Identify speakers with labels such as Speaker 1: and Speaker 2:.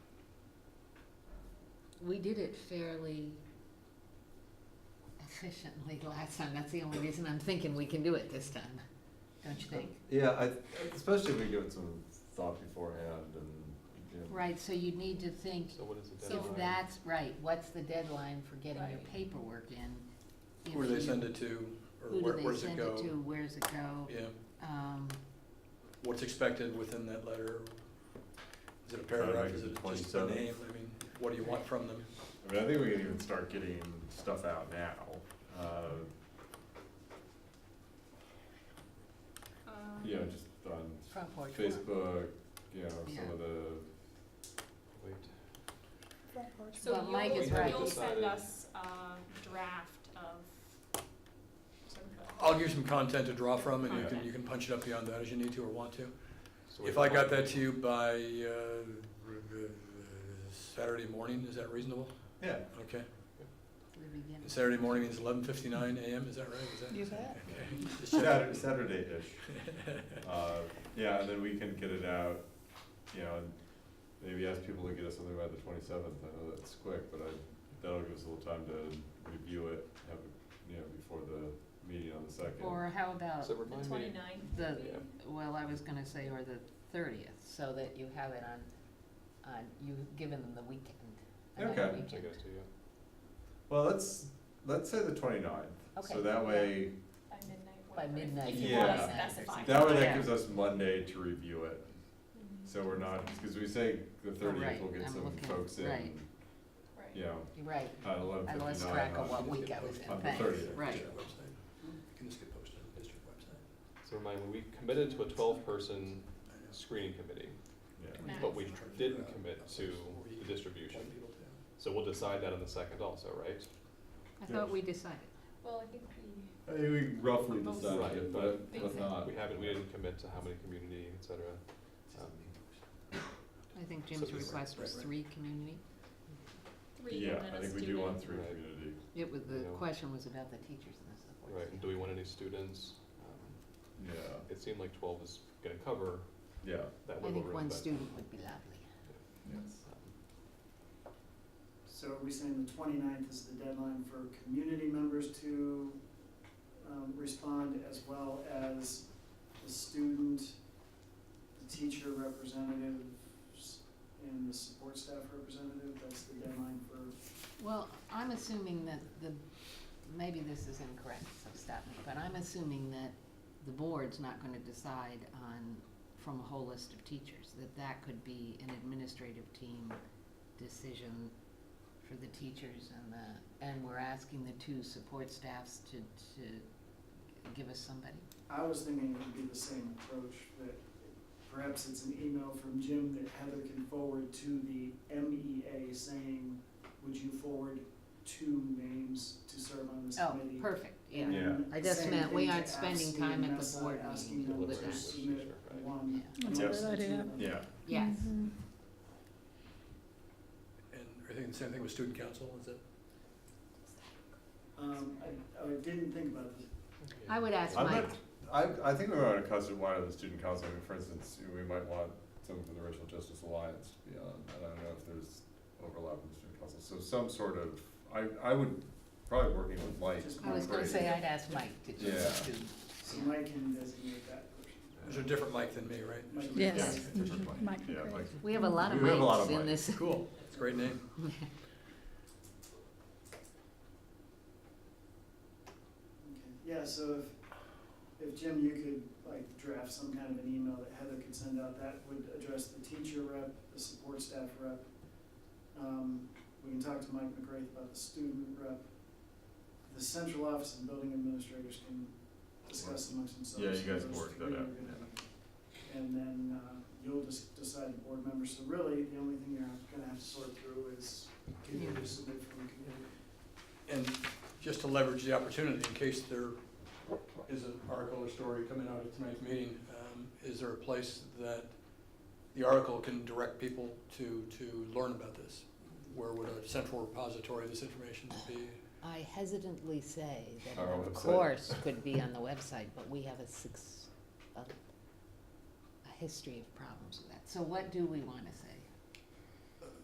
Speaker 1: we did it fairly efficiently last time. That's the only reason I'm thinking we can do it this time, don't you think?
Speaker 2: Yeah, I, especially if we give it some thought beforehand and, you know.
Speaker 1: Right, so you need to think,
Speaker 3: So what is the
Speaker 1: if
Speaker 3: deadline?
Speaker 1: that's right, what's the deadline for getting your
Speaker 4: Right.
Speaker 1: paperwork in? If
Speaker 5: Where do
Speaker 1: you-
Speaker 5: they send it to, or
Speaker 1: Who
Speaker 5: where,
Speaker 1: do
Speaker 5: where
Speaker 1: they
Speaker 5: does it
Speaker 1: send
Speaker 5: go?
Speaker 1: it to? Where's it go?
Speaker 5: Yeah,
Speaker 1: Um,
Speaker 5: what's expected within that letter? Is it a
Speaker 2: Try
Speaker 5: paragraph,
Speaker 2: to
Speaker 5: is it
Speaker 2: make it
Speaker 5: just a
Speaker 2: 27th.
Speaker 5: name? I mean, what do you want from them?
Speaker 6: I mean, I think we can even start getting stuff out now. Uh,
Speaker 4: Um,
Speaker 6: you know, just on
Speaker 1: Front porch. forum.
Speaker 6: Facebook, you know, some of the,
Speaker 3: Wait.
Speaker 1: But
Speaker 4: So
Speaker 1: Mike
Speaker 4: you'll,
Speaker 1: is
Speaker 3: right.
Speaker 4: you'll send
Speaker 3: Decided.
Speaker 4: us a draft of some kind of-
Speaker 5: I'll give you some content to draw from, and you can,
Speaker 4: Content.
Speaker 5: you can punch it up beyond that as you need to or want to.
Speaker 3: So
Speaker 5: If
Speaker 3: we-
Speaker 5: I got that to you by, uh, Saturday morning, is that reasonable?
Speaker 6: yeah.
Speaker 5: Okay,
Speaker 1: We begin.
Speaker 5: And Saturday morning means eleven fifty-nine AM, is that right? Is that-
Speaker 4: You bet.
Speaker 5: Okay. Just check.
Speaker 6: Saturday, Saturday-ish. Uh, yeah, and then we can get it out, you know, and maybe ask people to get us something by the twenty-seventh, I know that's quick, but I, that'll give us a little time to review it, have, it, you know, before the meeting on the second.
Speaker 1: Or how about
Speaker 3: So
Speaker 4: the
Speaker 3: remind me,
Speaker 4: twenty-ninth.
Speaker 1: the, well, I was gonna say, or the thirtieth, so that you have it on, on, you've given them the weekend. another
Speaker 6: Okay.
Speaker 3: I think
Speaker 1: weekend.
Speaker 3: it's to you.
Speaker 6: Well, let's, let's say the 29th.
Speaker 1: Okay.
Speaker 6: So that way,
Speaker 4: By midnight.
Speaker 1: By
Speaker 4: whatever, if
Speaker 1: midnight,
Speaker 4: You
Speaker 6: yeah.
Speaker 4: wanna
Speaker 6: Yeah.
Speaker 4: specify.
Speaker 6: That way,
Speaker 1: Yeah.
Speaker 6: that gives us Monday to review it,
Speaker 4: Mhm.
Speaker 6: so we're not, because we say the
Speaker 1: Oh, right,
Speaker 6: thirtieth, we'll get
Speaker 1: I'm
Speaker 6: some
Speaker 1: looking,
Speaker 6: folks
Speaker 1: right.
Speaker 6: in,
Speaker 4: Right.
Speaker 6: you know,
Speaker 1: You're right,
Speaker 6: at eleven
Speaker 1: I lost
Speaker 6: fifty-nine
Speaker 1: track of
Speaker 6: on
Speaker 1: what week I was in,
Speaker 6: on the
Speaker 1: thanks,
Speaker 6: thirtieth.
Speaker 1: right.
Speaker 5: District website. Can this get posted on the district website?
Speaker 3: So remind me, we committed to a twelve-person screening committee,
Speaker 6: Yeah.
Speaker 4: Max.
Speaker 3: but we didn't commit to the distribution. So we'll decide that on the second also, right?
Speaker 1: I
Speaker 6: thought
Speaker 1: thought we decided.
Speaker 4: Well, I think we,
Speaker 6: I think we roughly
Speaker 4: Right,
Speaker 6: decided, it, but,
Speaker 4: but
Speaker 6: but not.
Speaker 3: We haven't, we didn't commit to how many community, et cetera. Um,
Speaker 1: I think
Speaker 3: Jim's
Speaker 1: Jim's
Speaker 3: So this-
Speaker 1: request was three community.
Speaker 4: three, and
Speaker 6: Yeah,
Speaker 4: then
Speaker 6: I
Speaker 4: a
Speaker 6: think we do want
Speaker 4: student.
Speaker 6: three
Speaker 3: Right.
Speaker 6: community.
Speaker 1: It was, the
Speaker 3: Yeah.
Speaker 1: question was about the teachers and the
Speaker 3: Right,
Speaker 1: support.
Speaker 3: and do we want any students? Um,
Speaker 6: Yeah,
Speaker 3: It seemed like twelve is gonna cover
Speaker 6: yeah,
Speaker 3: that
Speaker 1: I
Speaker 3: wiggle
Speaker 1: think
Speaker 3: room.
Speaker 1: one
Speaker 3: but,
Speaker 1: student would be lovely.
Speaker 6: yes.
Speaker 3: um,
Speaker 7: So are we saying the 29th is the deadline for community members to um, respond as well as the student, the teacher representatives, and the support staff representative? That's the deadline for,
Speaker 1: Well, I'm assuming that the, maybe this is incorrect, so stop me, but I'm assuming that the board's not gonna decide on, from a whole list of teachers, that that could be an administrative team decision for the teachers and the, and we're asking the two support staffs to, to give us somebody.
Speaker 7: I was thinking it would be the same approach, that perhaps it's an email from Jim that Heather can forward to the MEA saying, would you forward two names to serve on this
Speaker 1: Oh,
Speaker 7: committee?
Speaker 1: perfect, yeah.
Speaker 6: Yeah.
Speaker 1: I just
Speaker 7: Same
Speaker 1: meant we
Speaker 7: thing to
Speaker 1: aren't
Speaker 7: ask
Speaker 1: spending time at the
Speaker 7: CMS,
Speaker 1: board
Speaker 7: asking
Speaker 1: meeting
Speaker 7: them
Speaker 1: with
Speaker 7: to
Speaker 1: that.
Speaker 7: submit
Speaker 3: Right.
Speaker 7: one
Speaker 1: Yeah.
Speaker 4: That's a
Speaker 6: Yes.
Speaker 4: good idea.
Speaker 6: Yeah,
Speaker 1: Yes,
Speaker 5: And I think the same thing with student council, is it?
Speaker 7: Um, I, I didn't think about this.
Speaker 1: I would ask
Speaker 6: I'm
Speaker 1: Mike,
Speaker 6: not, I, I think we want to custom wire the student council, I mean, for instance, we might want someone from the Racial Justice Alliance to be on, and I don't know if there's overlap in the student council, so some sort of, I, I would, probably working with Mike.
Speaker 7: Just
Speaker 1: I was gonna
Speaker 6: Mike
Speaker 1: say
Speaker 6: Brady.
Speaker 1: I'd ask Mike to
Speaker 6: Yeah.
Speaker 1: just do.
Speaker 7: So Mike can designate that person.
Speaker 5: There's a different mic than me, right?
Speaker 7: Mike can
Speaker 6: Yeah,
Speaker 4: Yes.
Speaker 7: designate.
Speaker 6: different Mike. Yeah, Mike.
Speaker 1: We have a lot of
Speaker 6: We have a lot
Speaker 1: mics
Speaker 6: of
Speaker 1: in
Speaker 6: mics.
Speaker 1: this.
Speaker 5: Cool, it's a great name.
Speaker 7: Okay. Yeah, so if, if Jim, you could like draft some kind of an email that Heather could send out, that would address the teacher rep, the support staff rep. Um, we can talk to Mike McGrath about the student rep. The central office and building administrators can discuss amongst themselves.
Speaker 6: Yeah, you guys
Speaker 7: Those
Speaker 6: can work that
Speaker 7: three are
Speaker 6: out,
Speaker 7: gonna
Speaker 6: yeah.
Speaker 7: be and then uh, you'll just decide the board members. So really, the only thing you're gonna have to sort through is can you just submit from the community?
Speaker 5: And just to leverage the opportunity, in case there is an article or story coming out at tonight's meeting, um, is there a place that the article can direct people to, to learn about this? Where would a central repository of this information be?
Speaker 1: I hesitantly say that
Speaker 6: Our
Speaker 1: the
Speaker 6: website.
Speaker 1: course could be on the website, but we have a six, a, a history of problems with that. So what do we wanna say?